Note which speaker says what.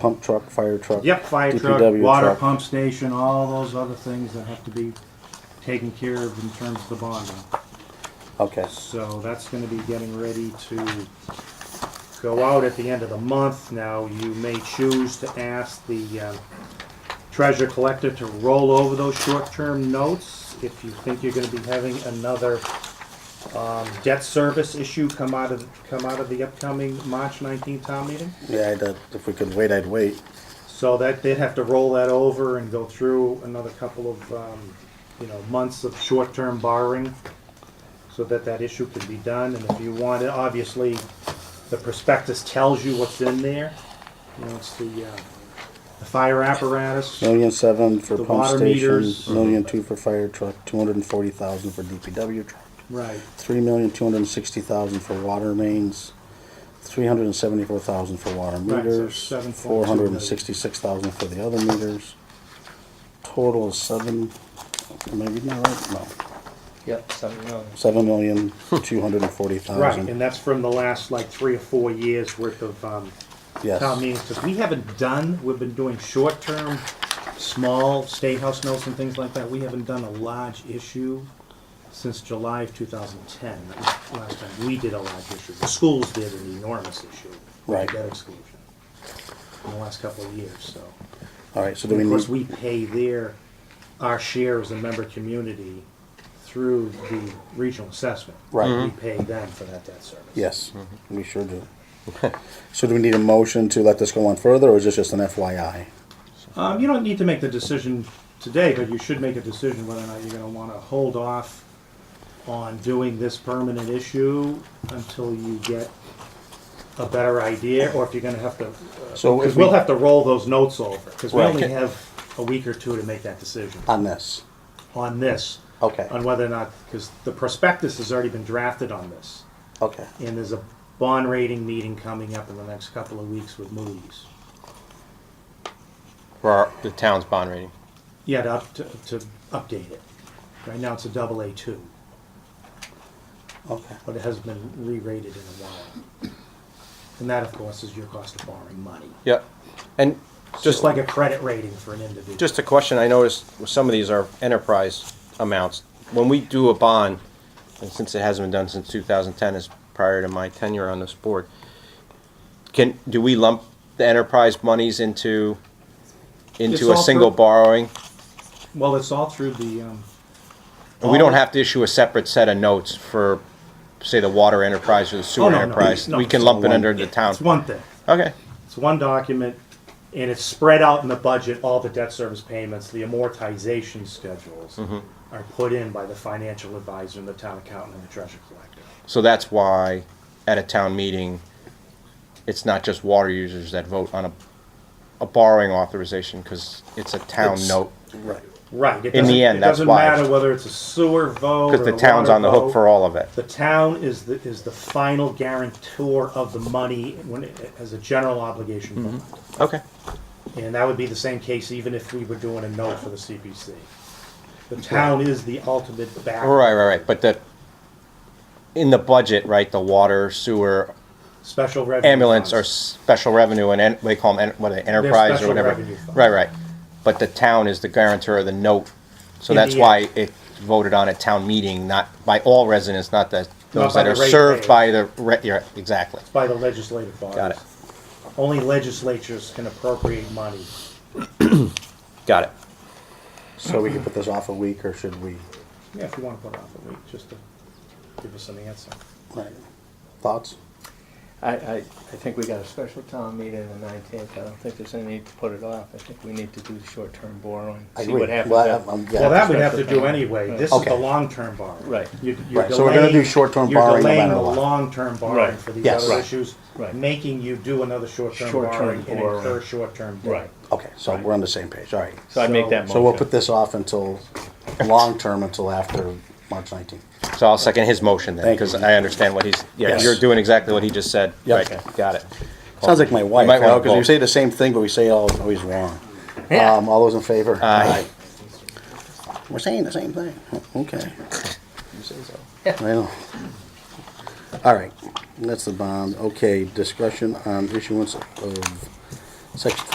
Speaker 1: pump truck, fire truck.
Speaker 2: Yep, fire truck,
Speaker 1: DPW
Speaker 2: water
Speaker 1: truck.
Speaker 2: pump station, all those other things that have to be taken care of in terms of the bonding.
Speaker 1: Okay,
Speaker 2: So that's gonna be getting ready to go out at the end of the month. Now, you may choose to ask the uh, treasurer collector to roll over those short-term notes if you think you're gonna be having another um, debt service issue come out of, come out of the upcoming March 19th town meeting.
Speaker 1: yeah, I'd, uh, if we could wait, I'd wait.
Speaker 2: So that, they'd have to roll that over and go through another couple of, um, you know, months of short-term borrowing so that that issue could be done. And if you want, it, obviously, the prospectus tells you what's in there. You know, it's the, uh, the fire apparatus.
Speaker 1: Million seven for
Speaker 2: The
Speaker 1: pump
Speaker 2: water
Speaker 1: station,
Speaker 2: meters.
Speaker 1: million two for fire truck, two hundred and forty thousand for DPW truck,
Speaker 2: Right.
Speaker 1: three million two hundred and sixty thousand for water mains, three hundred and seventy-four thousand for water
Speaker 2: so
Speaker 1: meters,
Speaker 2: 7.2
Speaker 1: four hundred and sixty-six thousand for the other meters. Total is seven, am I reading that right? No,
Speaker 3: Yep, seven million.
Speaker 1: seven million two hundred and forty
Speaker 2: Right,
Speaker 1: thousand.
Speaker 2: and that's from the last, like, three or four years' worth of, um, town
Speaker 1: Yes,
Speaker 2: meetings, because we haven't done, we've been doing short-term, small state house notes and things like that. We haven't done a large issue since July of 2010. That was the last time we did a large issue. The schools did an enormous issue. with
Speaker 1: Right.
Speaker 2: Debt exclusion in the last couple of years, so.
Speaker 1: all right, so do we
Speaker 2: Of course,
Speaker 1: need,
Speaker 2: we pay their, our share as a member community through the regional assessment.
Speaker 1: Right.
Speaker 2: We pay them for that debt service.
Speaker 1: yes, we sure do. So do we need a motion to let this go on further, or is this just an FYI?
Speaker 2: Um, you don't need to make the decision today, but you should make a decision whether or not you're gonna wanna hold off on doing this permanent issue until you get a better idea, or if you're gonna have to, uh,
Speaker 1: So
Speaker 2: because
Speaker 1: if
Speaker 2: we'll
Speaker 1: we,
Speaker 2: have to roll those notes over, because we
Speaker 1: Right.
Speaker 2: only have a week or two to make that decision
Speaker 1: on this,
Speaker 2: on this,
Speaker 1: okay,
Speaker 2: on whether or not, because the prospectus has already been drafted on this,
Speaker 1: okay,
Speaker 2: and there's a bond rating meeting coming up in the next couple of weeks with Moody's.
Speaker 3: For our, the town's bond rating.
Speaker 2: Yeah, to, up- to, to update it. Right now, it's a double A two,
Speaker 1: okay.
Speaker 2: but it has been re-rated in a while. And that, of course, is your cost of borrowing money.
Speaker 3: Yep. And
Speaker 2: It's
Speaker 3: just
Speaker 2: Just
Speaker 3: like
Speaker 2: like a credit rating for an individual.
Speaker 3: just a question, I noticed with some of these are enterprise amounts. When we do a bond, and since it hasn't been done since 2010, is prior to my tenure on this board, can do we lump the enterprise monies into
Speaker 2: It's
Speaker 3: into
Speaker 2: all
Speaker 3: a single
Speaker 2: through-
Speaker 3: borrowing?
Speaker 2: Well, it's all through the, um,
Speaker 3: And we don't have to issue a separate set of notes for, say, the water enterprise or the sewer
Speaker 2: Oh, no, no,
Speaker 3: enterprise.
Speaker 2: no,
Speaker 3: Oh, we can
Speaker 2: it's
Speaker 3: lump it
Speaker 1: all
Speaker 3: under the town.
Speaker 2: it's one thing.
Speaker 3: Okay.
Speaker 2: It's one document, and it's spread out in the budget, all the debt service payments, the amortization schedules
Speaker 3: Mm-hmm.
Speaker 2: are put in by the financial advisor and the town accountant and the treasurer collector.
Speaker 3: So that's why at a town meeting, it's not just water users that vote on a, a borrowing authorization because it's a town
Speaker 1: It's-
Speaker 3: note.
Speaker 1: Right.
Speaker 2: Right. It
Speaker 3: In the
Speaker 2: doesn't-
Speaker 3: end,
Speaker 2: it
Speaker 3: that's
Speaker 2: doesn't
Speaker 3: why.
Speaker 2: matter whether it's a sewer vote.
Speaker 3: Because
Speaker 2: or
Speaker 3: the
Speaker 2: a
Speaker 3: town's
Speaker 2: water
Speaker 3: on the hook
Speaker 2: vote.
Speaker 3: for all of it.
Speaker 2: The town is the, is the final guarantor of the money when, it- as a general obligation
Speaker 3: Mm-hmm.
Speaker 2: bond.
Speaker 3: Okay.
Speaker 2: And that would be the same case even if we were doing a note for the CPC. The town is the ultimate back.
Speaker 3: Right, right, right. But the, in the budget, right, the water, sewer,
Speaker 2: Special revenue.
Speaker 3: ambulance or
Speaker 2: funds.
Speaker 3: special revenue and en- they call them, en- what, are they, enterprise
Speaker 2: special
Speaker 3: or whatever.
Speaker 2: revenue funds.
Speaker 3: Right, right. But the town is the guarantor of the note. So
Speaker 2: In the
Speaker 3: that's why it voted on at town meeting, not by all residents, not the, those
Speaker 2: by
Speaker 3: that are
Speaker 2: the
Speaker 3: served
Speaker 2: ratepayers.
Speaker 3: by the, re- yeah, exactly.
Speaker 2: By the legislative bodies.
Speaker 3: Got it.
Speaker 2: Only legislatures can appropriate money.
Speaker 3: Got it.
Speaker 1: So we can put this off a week, or should we?
Speaker 2: Yeah, if you want to put it off a week, just to give us an answer.
Speaker 1: Right. Thoughts?
Speaker 4: I, I, I think we got a special town meeting on the nineteenth, I don't think there's any need to put it off, I think we need to do the short-term borrowing,
Speaker 1: I
Speaker 4: see
Speaker 1: agree.
Speaker 4: what happens.
Speaker 1: Well,
Speaker 4: after.
Speaker 1: I- I'm-
Speaker 2: Well,
Speaker 1: yeah.
Speaker 2: that we'd have to
Speaker 4: Special
Speaker 2: do
Speaker 4: town.
Speaker 2: anyway.
Speaker 4: Right.
Speaker 2: This is the
Speaker 1: Okay.
Speaker 2: long-term borrowing.
Speaker 4: Right.
Speaker 2: You- you're
Speaker 1: Right, so we're gonna do
Speaker 2: delaying-
Speaker 1: short-term borrowing no
Speaker 2: You're
Speaker 1: matter
Speaker 2: delaying
Speaker 1: what.
Speaker 2: the long-term borrowing
Speaker 4: Right.
Speaker 2: for these
Speaker 1: Yes.
Speaker 2: other
Speaker 1: Right.
Speaker 2: issues,
Speaker 4: Right.
Speaker 2: making you do another short-term
Speaker 4: Short-term
Speaker 2: borrowing and
Speaker 4: borrowing.
Speaker 2: incur short-term debt.
Speaker 4: Right,
Speaker 1: Okay, so we're on the same page, all right.
Speaker 4: so I'd make that motion.
Speaker 1: So we'll put this off until, long-term until after March nineteenth.
Speaker 3: So I'll second his motion then,
Speaker 1: Thank
Speaker 3: because
Speaker 1: you.
Speaker 3: I understand what he's, yeah,
Speaker 1: Yes.
Speaker 3: you're doing exactly what he just said.
Speaker 1: Yep.
Speaker 3: Right,
Speaker 1: Okay.
Speaker 3: got it.
Speaker 1: Sounds like my wife,
Speaker 3: might
Speaker 1: you know,
Speaker 3: wanna
Speaker 1: because we
Speaker 3: vote.
Speaker 1: say the same thing, but we say it all, always wrong. Um, all those in favor?
Speaker 3: Aye.
Speaker 1: Aye. We're saying the same thing, okay.
Speaker 3: You say so.
Speaker 1: I know. All right, that's the bond. Okay, discussion on issuance of section